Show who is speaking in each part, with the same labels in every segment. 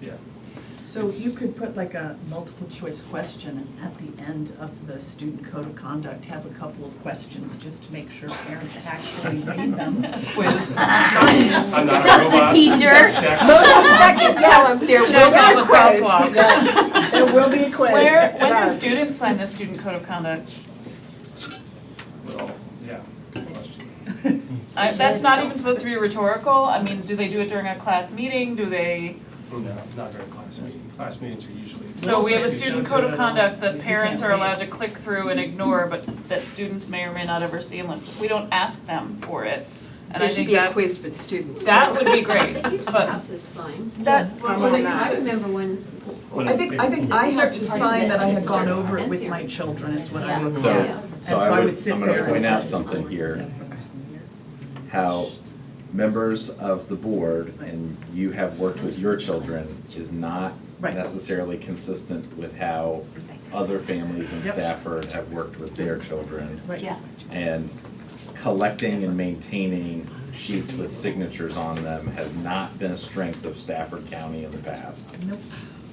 Speaker 1: Yeah.
Speaker 2: So you
Speaker 1: It's-
Speaker 2: could put like a multiple choice question at the end of the student code of conduct, have a couple of questions just to make sure parents actually read them. Quiz.
Speaker 1: I'm not a
Speaker 3: Says the
Speaker 1: robot.
Speaker 3: teacher.
Speaker 1: Check.
Speaker 4: Motion second, yes. There will
Speaker 5: Check
Speaker 4: be
Speaker 5: out
Speaker 4: a
Speaker 5: the
Speaker 4: quiz.
Speaker 5: crosswalk.
Speaker 4: Yes, there will be a quiz.
Speaker 5: Where, when do
Speaker 4: Yes.
Speaker 5: students sign the student code of conduct?
Speaker 1: Well, yeah, good question.
Speaker 5: I- That's not even supposed to be rhetorical, I mean, do they do it during a class meeting, do they?
Speaker 1: No, it's not during class meeting. Class meetings are usually.
Speaker 5: So we have a
Speaker 1: Teachers
Speaker 5: student
Speaker 1: sit
Speaker 5: code
Speaker 1: in
Speaker 5: of
Speaker 1: a-
Speaker 5: conduct that
Speaker 2: You
Speaker 5: parents
Speaker 2: can't
Speaker 5: are
Speaker 2: read.
Speaker 5: allowed to click through and ignore, but that students may or may not ever see unless, we don't ask them for it. And I
Speaker 6: There should
Speaker 5: think
Speaker 6: be a
Speaker 5: that's,
Speaker 6: quiz for the students.
Speaker 5: that would be great,
Speaker 7: They used to
Speaker 5: but
Speaker 7: have to sign.
Speaker 5: that,
Speaker 4: How
Speaker 7: Well,
Speaker 4: about
Speaker 7: they used
Speaker 4: that?
Speaker 7: to- I remember when.
Speaker 1: When
Speaker 2: I think, I think I had to sign that I had gone over it with
Speaker 7: Certain-
Speaker 2: my children is what I
Speaker 7: Yeah.
Speaker 2: remember.
Speaker 8: So-
Speaker 7: Yeah.
Speaker 2: And
Speaker 8: So I would,
Speaker 2: sit
Speaker 8: I'm gonna
Speaker 2: there.
Speaker 8: point out something here, how members of the board, and you have worked with your children, is not
Speaker 2: Right.
Speaker 8: necessarily consistent with how other families in
Speaker 2: Yep.
Speaker 8: Stafford have worked with their children.
Speaker 2: Right.
Speaker 3: Yeah.
Speaker 8: And collecting and maintaining sheets with signatures on them has not been a strength of Stafford County in the past
Speaker 2: Nope.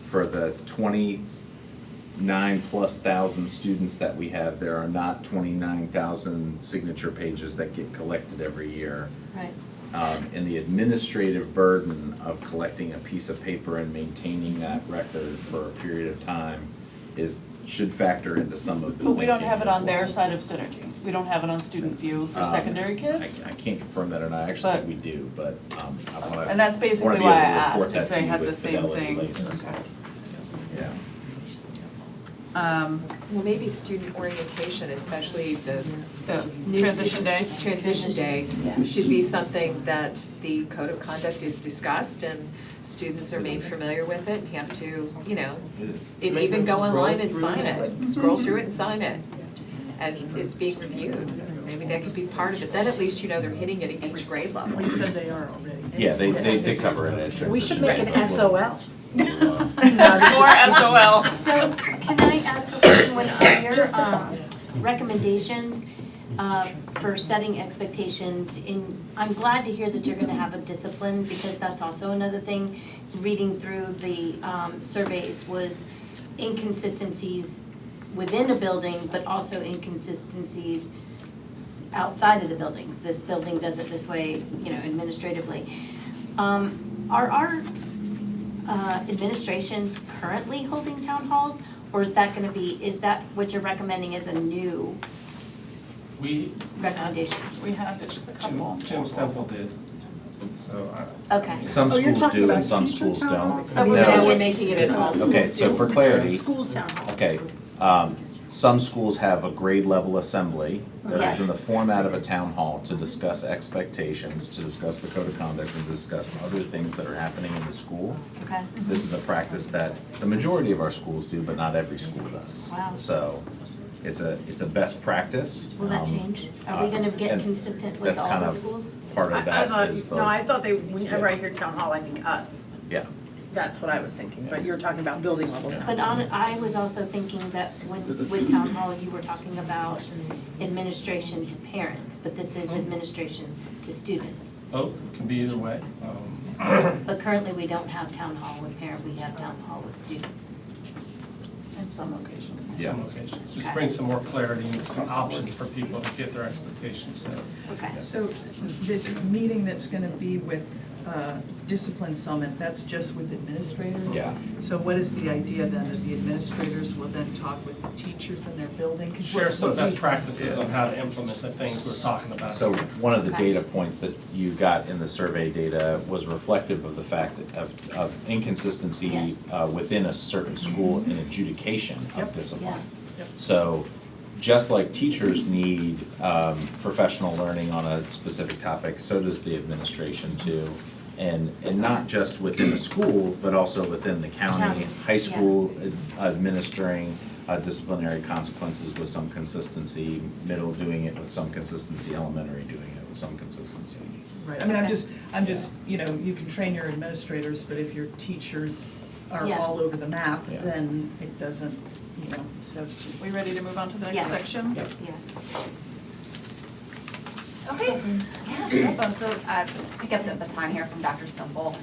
Speaker 8: for the twenty-nine plus thousand students that we have, there are not twenty-nine thousand signature pages that get collected every year.
Speaker 3: Right.
Speaker 8: Um, and the administrative burden of collecting a piece of paper and maintaining that record for a period of time is, should factor into some of the
Speaker 5: but we don't
Speaker 8: thinking
Speaker 5: have it
Speaker 8: as
Speaker 5: on their
Speaker 8: well.
Speaker 5: side of synergy, we don't have it on student views or
Speaker 8: Um,
Speaker 5: secondary
Speaker 8: I,
Speaker 5: kids.
Speaker 8: I can't confirm that, and I actually
Speaker 5: But-
Speaker 8: think we do, but, um, I wanna.
Speaker 5: And that's
Speaker 8: wanna
Speaker 5: basically
Speaker 8: be
Speaker 5: why I
Speaker 8: able to report
Speaker 5: asked
Speaker 8: that
Speaker 5: if
Speaker 8: to
Speaker 5: they
Speaker 8: you
Speaker 5: had the
Speaker 8: with
Speaker 5: same
Speaker 8: fidelity
Speaker 5: thing, okay.
Speaker 8: later. Yeah.
Speaker 5: Um,
Speaker 6: Well, maybe student orientation, especially the
Speaker 5: the
Speaker 6: new
Speaker 5: transition day,
Speaker 6: student- Transition day should be something that the code of conduct is discussed and students are made familiar with it and have to, you know,
Speaker 8: It is.
Speaker 6: and even go online and sign
Speaker 8: Mm-hmm.
Speaker 6: it, scroll through it and sign it as it's being reviewed. Maybe that could be part of it, then at least you know they're hitting it at each grade level.
Speaker 2: Well, you said they are already.
Speaker 8: Yeah, they, they, they cover it as
Speaker 4: We should
Speaker 8: transition
Speaker 4: make an
Speaker 8: day, but-
Speaker 4: SOL.
Speaker 5: more SOL.
Speaker 3: So can I ask a question when on your um recommendations uh for setting expectations in, I'm glad to hear that you're gonna have a discipline because that's also another thing. Reading through the um surveys was inconsistencies within a building, but also inconsistencies outside of the buildings. This building does it this way, you know, administratively. Um are our uh, administrations currently holding town halls? Or is that gonna be, is that what you're recommending as a new
Speaker 1: We,
Speaker 3: recommendation?
Speaker 5: we had a couple.
Speaker 1: Jim, Jim Stemple did, so I.
Speaker 3: Okay.
Speaker 8: Some
Speaker 4: Oh, you're
Speaker 8: schools
Speaker 4: talking
Speaker 8: do
Speaker 4: about
Speaker 8: and some
Speaker 4: teacher
Speaker 8: schools
Speaker 4: town
Speaker 8: don't.
Speaker 4: halls?
Speaker 6: So
Speaker 8: No.
Speaker 6: now we're making it at all schools
Speaker 8: Okay, so
Speaker 6: too.
Speaker 8: for clarity,
Speaker 4: Schools town halls.
Speaker 8: okay, um, some schools have a grade level assembly that is in the
Speaker 3: Yes.
Speaker 8: format of a town hall to discuss expectations, to discuss the code of conduct, and discuss other things that are happening in the school.
Speaker 3: Okay.
Speaker 8: This is a practice that the majority of our schools do, but not every school does.
Speaker 3: Wow.
Speaker 8: So it's a, it's a best practice.
Speaker 3: Will that
Speaker 8: um,
Speaker 3: change? Are we gonna get consistent with
Speaker 8: that's
Speaker 3: all
Speaker 8: kind
Speaker 3: the
Speaker 8: of-
Speaker 3: schools?
Speaker 8: Part of
Speaker 9: I- I
Speaker 8: that
Speaker 9: thought-
Speaker 8: is the.
Speaker 9: No, I thought they, whenever I hear town hall, I think us,
Speaker 8: Yeah.
Speaker 9: that's what I was thinking, but you're talking about building level now.
Speaker 3: But on, I was also thinking that when, with town hall, you were talking about administration to parents, but this is administration to students.
Speaker 1: Oh, it can be either way. Um,
Speaker 3: But currently, we don't have town hall with parent, we have town hall with students.
Speaker 5: In some locations.
Speaker 1: in
Speaker 8: Yeah.
Speaker 1: some locations. Just bring some more clarity and some options for people to get their expectations set.
Speaker 3: Okay.
Speaker 2: So this meeting that's gonna be with uh, Discipline Summit, that's just with administrators?
Speaker 8: Yeah.
Speaker 2: So what is the idea then, that the administrators will then talk with the teachers in their building? 'Cause
Speaker 1: Share
Speaker 2: what-
Speaker 1: some
Speaker 2: what
Speaker 1: best
Speaker 2: we-
Speaker 1: practices on how to implement the things we're talking about.
Speaker 8: So one of the
Speaker 3: Okay.
Speaker 8: data points that you got in the survey data was reflective of the fact that- of, of inconsistency
Speaker 3: Yes. Mm-hmm.
Speaker 8: uh, within a certain school in adjudication of
Speaker 2: Yep.
Speaker 8: discipline.
Speaker 3: Yeah.
Speaker 2: Yep.
Speaker 8: So, just like teachers need um, professional learning on a specific topic, so does the administration too. And, and not just within the school, but also within the county,
Speaker 3: County,
Speaker 8: high
Speaker 3: yeah.
Speaker 8: school ad- administering uh, disciplinary consequences with some consistency, middle doing it with some consistency, elementary doing it with some consistency.
Speaker 2: Right, I mean, I'm
Speaker 3: Okay.
Speaker 2: just, I'm just, you know, you can train your administrators, but if your teachers are
Speaker 3: Yeah.
Speaker 2: all over the map,
Speaker 8: Yeah.
Speaker 2: then it doesn't, you know, so it's just.
Speaker 5: We ready to move on to the next
Speaker 3: Yeah.
Speaker 5: section?
Speaker 8: Yeah.
Speaker 3: Yes.
Speaker 5: Okay.
Speaker 10: Yeah, no problem. so I pick up the baton here from Dr. Stumble.